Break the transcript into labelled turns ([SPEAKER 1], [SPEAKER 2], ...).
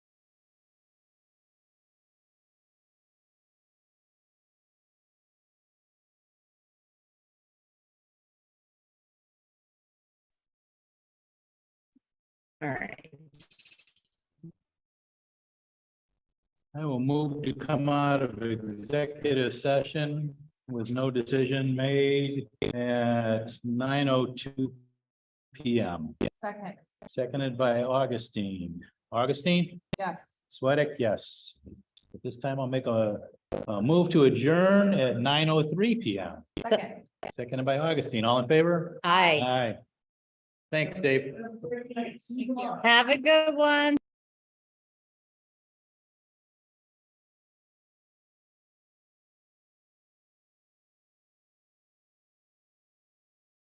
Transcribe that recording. [SPEAKER 1] All right.
[SPEAKER 2] I will move to come out of executive session with no decision made at nine oh two P M.
[SPEAKER 3] Second,
[SPEAKER 2] Seconded by Augustine. Augustine,
[SPEAKER 3] yes.
[SPEAKER 2] Sweattick, yes. At this time, I'll make a, a move to adjourn at nine oh three P M.
[SPEAKER 3] Second,
[SPEAKER 2] Seconded by Augustine. All in favor?
[SPEAKER 1] Aye.
[SPEAKER 2] Aye. Thanks, Dave.
[SPEAKER 3] thank you.
[SPEAKER 1] Have a good one.